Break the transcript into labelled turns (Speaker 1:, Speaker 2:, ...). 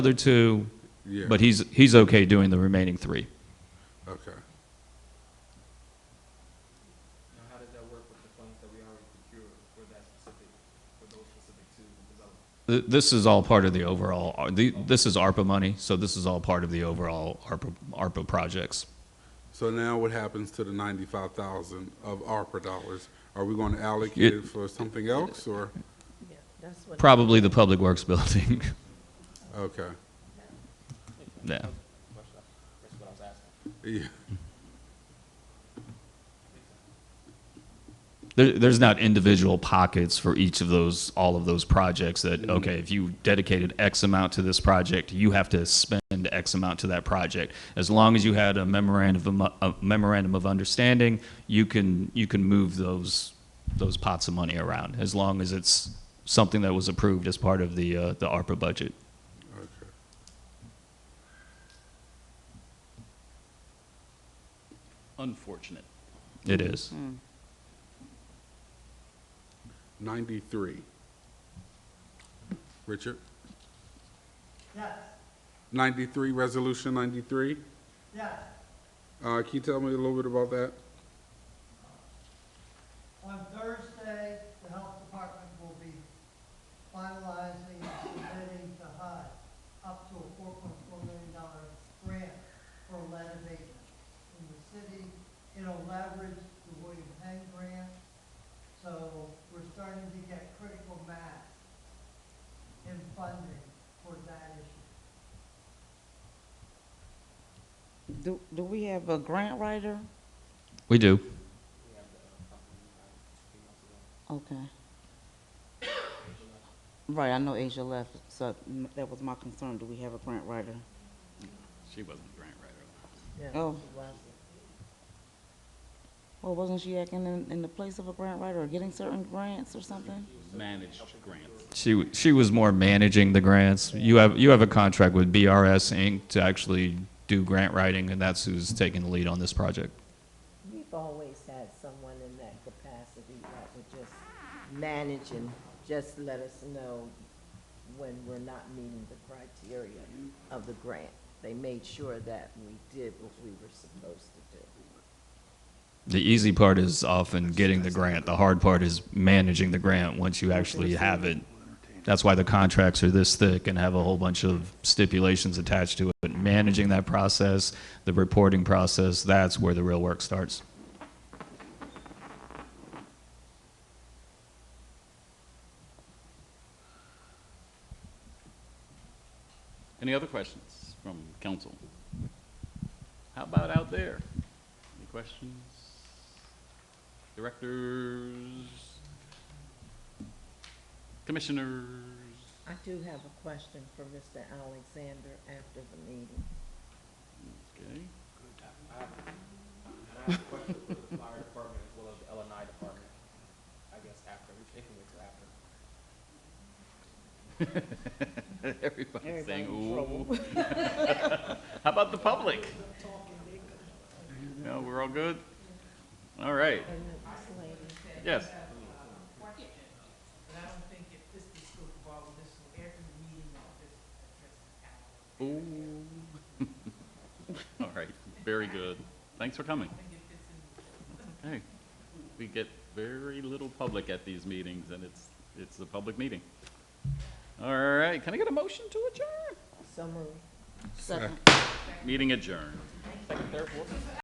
Speaker 1: other two,
Speaker 2: Yeah.
Speaker 1: but he's, he's okay doing the remaining three.
Speaker 2: Okay.
Speaker 3: Now, how does that work with the funds that we already procured for that specific, for those specific two developments?
Speaker 1: Th- This is all part of the overall, ar- the- this is ARPA money, so this is all part of the overall ARPA, ARPA projects.
Speaker 2: So now what happens to the ninety-five thousand of ARPA dollars? Are we going to allocate it for something else or?
Speaker 4: Yeah, that's what.
Speaker 1: Probably the Public Works Building,
Speaker 2: Okay.
Speaker 1: yeah.
Speaker 3: That's what I was asking.
Speaker 2: Yeah.
Speaker 1: There, there's not individual pockets for each of those, all of those projects that, okay, if you dedicated X amount to this project, you have to spend X amount to that project. As long as you had a memorandum, of- a memorandum of understanding, you can, you can move those, those pots of money around, as long as it's something that was approved as part of the, uh, the ARPA budget.
Speaker 2: Okay.
Speaker 5: Unfortunate.
Speaker 1: It is.
Speaker 2: Ninety-three. Richard?
Speaker 6: Yes,
Speaker 2: Ninety-three, resolution ninety-three?
Speaker 6: yes.
Speaker 2: Uh, can you tell me a little bit about that?
Speaker 6: On Thursday, the health department will be finalizing and submitting to HUD up to a four point four million dollar grant for lead abatement. In the city, it'll leverage the William Penn grant, so we're starting to get critical mass in funding for that issue.
Speaker 4: Do, do we have a grant writer?
Speaker 1: We do.
Speaker 4: Okay. Right, I know Asia left, so m- that was my concern. Do we have a grant writer?
Speaker 5: She wasn't a grant writer.
Speaker 4: Oh. Well, wasn't she acting in, in the place of a grant writer or getting certain grants or something?
Speaker 5: Managed grants.
Speaker 1: She, she was more managing the grants. You have, you have a contract with BRS Inc. to actually do grant writing, and that's who's taking the lead on this project.
Speaker 7: We've always had someone in that capacity that would just manage and just let us know when we're not meeting the criteria of the grant. They made sure that we did what we were supposed to do.
Speaker 1: The easy part is often getting the grant. The hard part is managing the grant once you actually have it. That's why the contracts are this thick and have a whole bunch of stipulations attached to it. But managing that process, the reporting process, that's where the real work starts.
Speaker 5: Any other questions from council? How about out there? Any questions? Directors? Commissioners?
Speaker 7: I do have a question for Mr. Alexander after the meeting.
Speaker 5: Okay.
Speaker 3: And I have a question for the fire department as well as the LNI department, I guess after, we can wait till after.
Speaker 5: Everybody's saying,
Speaker 7: Everybody's in
Speaker 5: ooh. How about the public? No, we're all good? All right,
Speaker 7: And this lady,
Speaker 5: yes.
Speaker 8: But I don't think if this is school involved, this will every meeting of this addresses Allen.
Speaker 5: Ooh. All right, very good. Thanks for coming. Hey, we get very little public at these meetings, and it's, it's a public meeting. All right, can I get a motion to adjourn?
Speaker 7: so moved.
Speaker 4: Second.
Speaker 5: Meeting adjourned.